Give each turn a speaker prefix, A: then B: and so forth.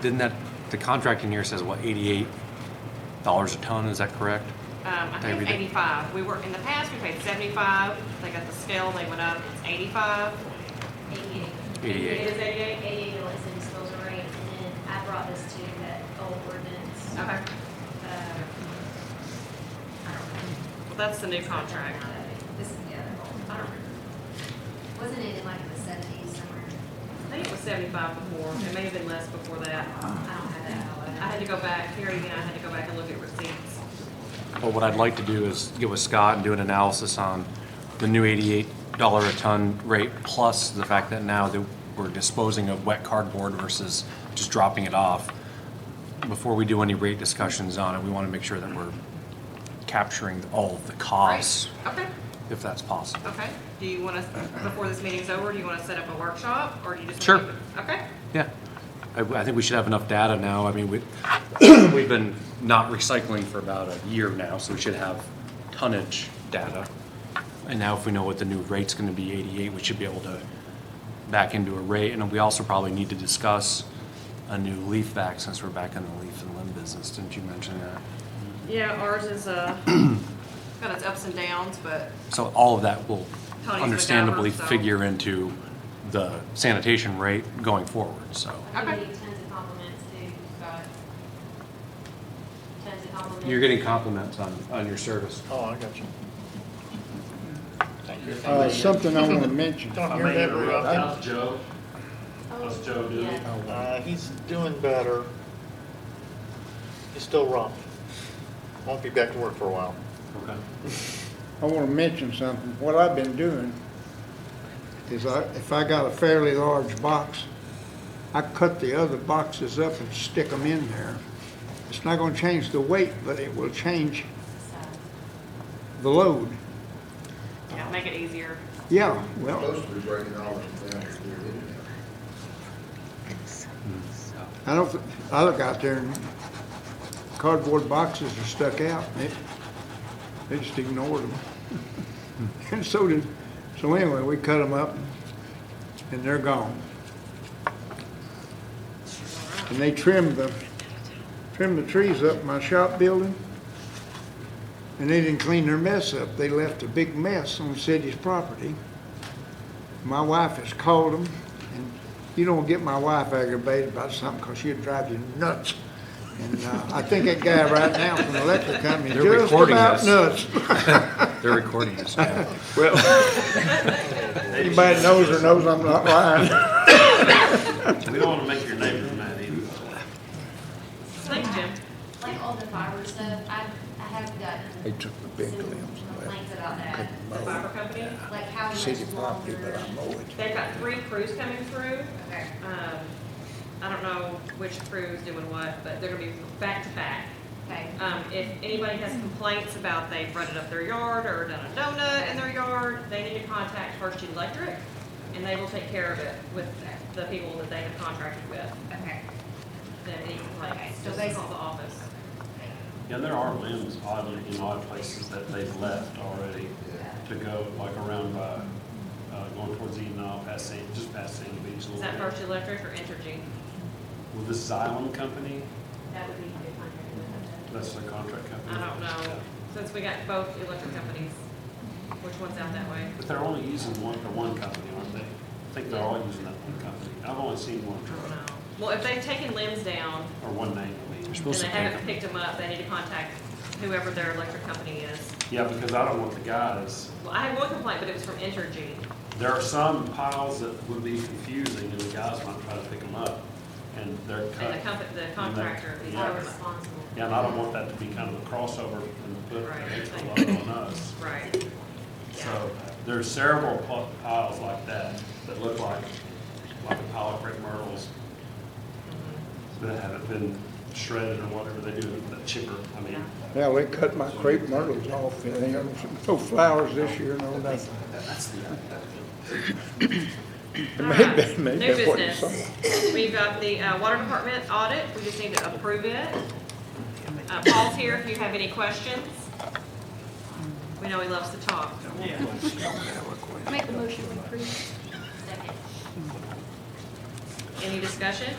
A: didn't that, the contract in here says what, eighty-eight dollars a ton, is that correct?
B: Um, I think it's
A: Maybe.
B: eighty-five. We were, in the past, we paid seventy-five. They got the scale, they went up, it's eighty-five.
C: Eighty-eight.
B: It
A: Eighty-eight.
B: is eighty-eight?
C: Eighty-eight was in disposal rate, and then I brought this to that old ordinance.
B: Okay.
C: uh, I don't
B: Well, that's the new
C: know.
B: contract.
C: This is the other old.
B: I don't remember.
C: Wasn't it in like the seventies somewhere?
B: I think it was seventy-five before. It may have been less before that.
C: I
A: Uh-huh.
C: don't have that.
B: I had to go back, here again, I had to go back and look at receipts.
A: But what I'd like to do is get with Scott and do an analysis on the new eighty-eight dollar a ton rate, plus the fact that now that we're disposing of wet cardboard versus just dropping it off. Before we do any rate discussions on it, we want to make sure that we're capturing all of the costs,
B: Right? Okay,
A: if that's possible.
B: okay. Do you want to, before this meeting's over, do you want to set up a workshop, or do you just?
A: Sure.
B: wanna keep it- Okay.
A: Yeah, I, I think we should have enough data now. I mean, we, we've been not recycling for about a year now, so we should have tonnage data. And now if we know what the new rate's gonna be, eighty-eight, we should be able to back into a rate. And we also probably need to discuss a new leaf back since we're back in the leaf and limb business. Didn't you mention that?
B: Yeah, ours is, uh, got its ups and downs, but
A: So all of that will
B: Tony's been
A: understandably
B: down, so-
A: figure into the sanitation rate going forward, so.
C: I
B: Okay.
C: give you tons of compliments too, Scott. Tons of compliments.
A: You're getting compliments on, on your service.
D: Oh, I got you.
E: Uh, Something I want to mention.
D: Don't hear that very often.
F: Joe, How's Joe doing?
C: Oh,
A: Oh.
C: Yeah.
D: Uh, he's doing better. He's still rough. Won't be back to work for a while.
A: Okay.
E: I want to mention something. What I've been doing is I, if I got a fairly large box, I cut the other boxes up and stick them in there. It's not going to change the weight, but it will change the load.
B: yeah, make it easier.
E: Yeah, well,
G: Supposed to be breaking all of them down to their internet.
E: I don't, I look out there and cardboard boxes are stuck out. and They, they just ignored them. And so did, so anyway, we cut them up and they're gone. And they trimmed the, trimmed the trees up in my shop building. And they didn't clean their mess up. They left a big mess on the city's property. My wife has called them, and you don't get my wife aggravated about something, because she'll drive you nuts. And uh, I think that guy right now from the electric company is
A: They're
E: just
A: recording
E: about
A: this.
E: nuts.
A: They're recording this now.
E: Anybody knows or knows I'm not lying.
F: We don't want to make your neighbors mad either.
B: Thank you, Jim.
C: Like all the fiber stuff, I, I have gotten.
G: They took the big
C: some
G: limbs and left.
C: Complaints about that,
B: The fiber company,
C: like how much
G: City property, but
C: longer.
G: I mow it.
B: they've got three crews coming through.
C: Okay,
B: Um, I don't know which crew's doing what, but they're gonna be back to back.
C: okay.
B: Um, if anybody has complaints about they've rutted up their yard or done a donut in their yard, they need to contact First Electric, and they will take care of it with the people that they have contracted with,
C: Okay.
B: that any complaints,
C: Okay, so
B: just
C: they-
B: call the office.
F: Yeah, there are limbs oddly, in odd places that they've left already to go, like around by, uh, going towards Enoch, past San, just past Sandy Beach a
B: Is
F: little
B: that
F: bit.
B: First Electric or Entergy?
F: Well, this Xylem company,
C: That would be good contact.
F: that's their contract company.
B: I don't know, since we got both electric companies, which one's out that way?
F: But they're only using one, the one company, aren't they? I think they're all using that one company. I've only seen one
B: I don't
F: truck,
B: know. Well, if they've taken limbs down
F: or one name, I mean.
B: and they haven't picked them up, they need to contact whoever their electric company is.
F: Yeah, because I don't want the guys
B: Well, I had one complaint, but it was from Entergy.
F: There are some piles that would be confusing, and the guys might try to pick them up, and they're
B: And the
F: cut.
B: company, the contractor,
C: He's
B: he's
C: not
B: over.
C: responsible.
F: Yeah, and I don't want that to be kind of a crossover and put
B: Right.
F: an extra load on us.
B: Right,
F: So there's several pl- piles like that that look like, like a pile of crepe myrtles that haven't been shredded or whatever they do with that chipper. I mean,
E: Yeah, they cut my crepe myrtles off, and they have no flowers this year, no nothing.
F: that's the,
E: Maybe,
B: New
E: maybe that's what you saw.
B: business. We've got the uh, water department audit, we just need to approve it. Uh, Paul's here if you have any questions. We know he loves to talk.
C: Second.
B: Any discussion?